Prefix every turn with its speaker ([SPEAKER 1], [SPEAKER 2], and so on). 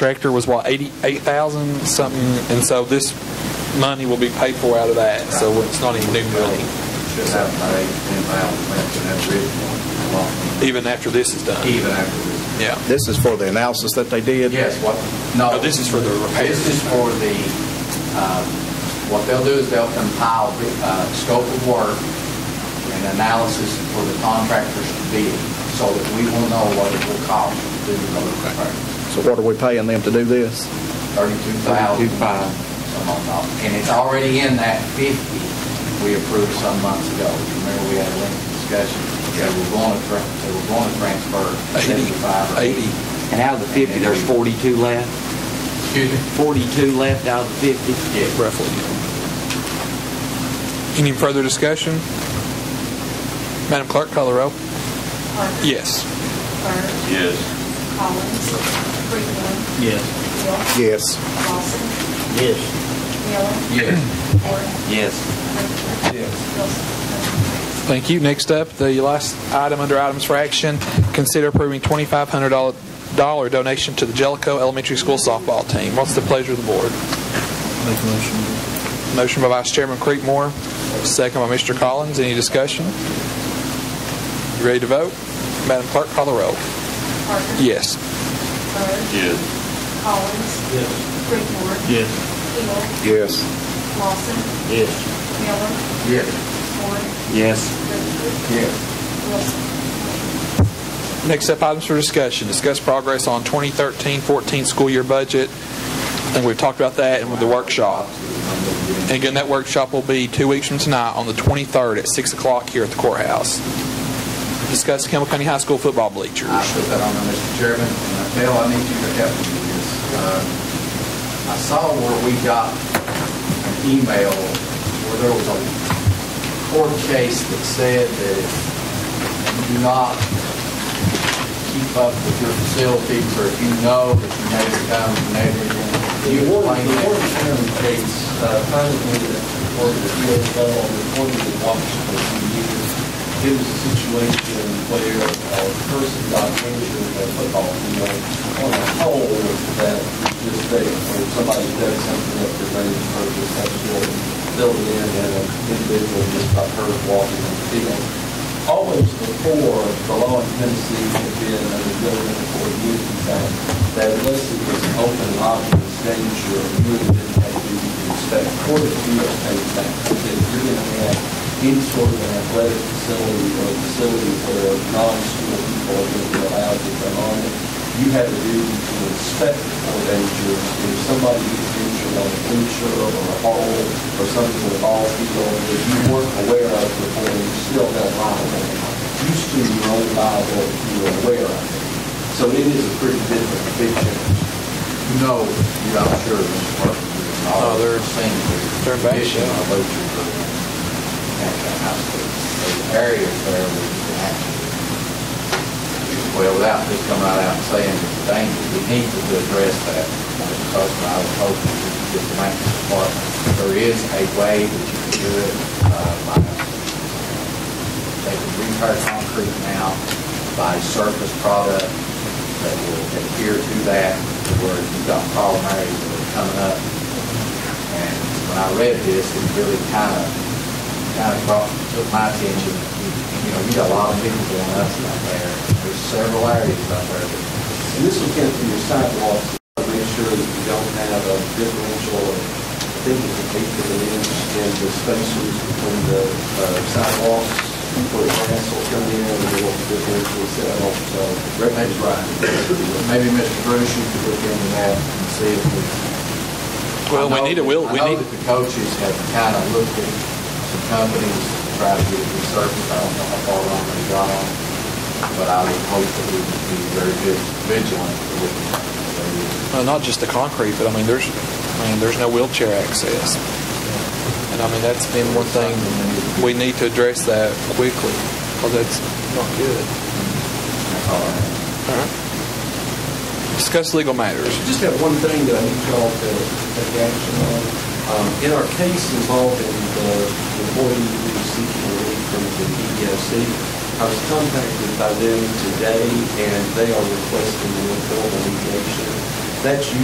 [SPEAKER 1] tractor was what, eighty-eight thousand something, and so this money will be paid for out of that, so it's not even new money,
[SPEAKER 2] Just out by eight, ten thousand, that's an average.
[SPEAKER 1] even after this is done.
[SPEAKER 2] Even after this.
[SPEAKER 1] Yeah.
[SPEAKER 3] This is for the analysis that they did?
[SPEAKER 2] Yes, what, no.
[SPEAKER 1] No, Oh, this is for the repairs.
[SPEAKER 2] This is for the, um, what they'll do is they'll compile the uh, scope of work and analysis for the contractors to bid, so that we will know what it will cost to do the repair.
[SPEAKER 3] So what are we paying them to do this?
[SPEAKER 2] Thirty-two thousand. Some on top. And it's already in that fifty we approved some months ago. Remember, we had a lengthy discussion. They were going to, tra- they were going to transfer seventy-five. or
[SPEAKER 1] Eighty.
[SPEAKER 4] And out of the 50, there's 42 left?
[SPEAKER 2] Excuse me?
[SPEAKER 4] 42 left out of the 50?
[SPEAKER 2] Yeah.
[SPEAKER 1] roughly. Any further discussion? Madam Clerk, call the roll.
[SPEAKER 5] Parker.
[SPEAKER 1] Yes.
[SPEAKER 5] Bird.
[SPEAKER 6] Yes.
[SPEAKER 5] Collins. Freeman.
[SPEAKER 4] Yes.
[SPEAKER 5] Hill.
[SPEAKER 3] Yes.
[SPEAKER 5] Lawson.
[SPEAKER 4] Yes.
[SPEAKER 5] Miller. Yes. Ford.
[SPEAKER 4] Yes.
[SPEAKER 5] Richter. Wilson.
[SPEAKER 1] Thank you. Next up, the last item under items for action, consider approving $2,500 dollar donation to the Jellicoe Elementary School softball team. What's the pleasure of the board? Motion by Vice Chairman Creekmore, second by Mr. Collins. Any discussion? You ready to vote? Madam Clerk, call the roll.
[SPEAKER 5] Parker.
[SPEAKER 1] Yes.
[SPEAKER 5] Bird.
[SPEAKER 6] Yes.
[SPEAKER 5] Collins.
[SPEAKER 4] Yes.
[SPEAKER 5] Freeman.
[SPEAKER 4] Yes.
[SPEAKER 5] Hill.
[SPEAKER 3] Yes.
[SPEAKER 5] Lawson.
[SPEAKER 4] Yes.
[SPEAKER 5] Miller.
[SPEAKER 2] Yes.
[SPEAKER 5] Ford.
[SPEAKER 4] Yes.
[SPEAKER 5] Richter.
[SPEAKER 2] Yes.
[SPEAKER 5] Wilson.
[SPEAKER 1] Next up, items for discussion. Discuss progress on 2013-14 school year budget. And we've talked about that and with the workshop. And again, that workshop will be two weeks from tonight on the 23rd at 6 o'clock here at the courthouse. Discuss Campbell County High School football bleachers.
[SPEAKER 2] I put that on there, Mr. Chairman, and Bill, I need you to help me with this. Uh, I saw where we got an email where there was a court case that said that if you do not keep up with your facilities, or if you know that you may become negligent, you
[SPEAKER 7] The warden,
[SPEAKER 2] claim
[SPEAKER 7] the warden
[SPEAKER 2] it.
[SPEAKER 7] chairman states, uh, privately, that the board of appeals fell on reporting the watch for a few years. It was a situation where a person got injured in a football field on a hole that this day, where somebody dug something up that they purchased, that building, building in, and an individual just got hurt walking on the field. Always before, the law in Tennessee had been, and the building for years, in fact, that unless it was an open and obvious danger, you really didn't have duty to inspect. Court of appeals came back and said, if you're going to have any sort of an athletic facility or a facility where non-school people are going to be allowed to come on it, you have a duty to inspect for danger. If somebody is injured on a bleacher or a hole or something with a ball field that you weren't aware of before, you still have liable. You still are only liable if you were aware of it. So it is a pretty different picture.
[SPEAKER 2] No, you're not sure, Mr. Parker.
[SPEAKER 1] Oh, they're- they're back,
[SPEAKER 2] Mission
[SPEAKER 1] yeah.
[SPEAKER 2] of Ocean Grove. At the hospital. Those areas there we can actually- Well, without just coming right out and saying it's a danger, we need to address that. Because I was hoping we could get the maintenance department, there is a way that you can do it, uh, by, they can repair concrete now by surface product, that will adhere to that, where you've got problem areas that are coming up. And when I read this, it really kind of, kind of brought, took my attention. You know, you got a lot of people going up out there. There's several areas out there that
[SPEAKER 7] And this will come from your sidewalks, to make sure that you don't have a differential, of, I think it's an eighth of an inch in the spaces between the uh, sidewalks, where the grass will come in, and there will be differential set off, so.
[SPEAKER 2] That's right. Maybe Mr. Bruce, you could look into that and see if we.
[SPEAKER 1] Well, we
[SPEAKER 2] I know-
[SPEAKER 1] need a will- we
[SPEAKER 2] I know
[SPEAKER 1] need-
[SPEAKER 2] that the coaches have kind of looked at some companies to try to get resurfaced. I don't know how far along they got on, but I would hope that we would be very good vigilant with it.
[SPEAKER 1] Well, not just the concrete, but I mean, there's, I mean, there's no wheelchair access. And I mean, that's been one thing, we need to address that quickly, because that's not good.
[SPEAKER 2] That's all I have.
[SPEAKER 1] All right. Discuss legal matters.
[SPEAKER 7] Just have one thing that I need y'all to take action on. Um, In our case involving the employee who was seeking relief from the EEOC, I was contacted by them today, and they are requesting an informal mediation
[SPEAKER 2] That's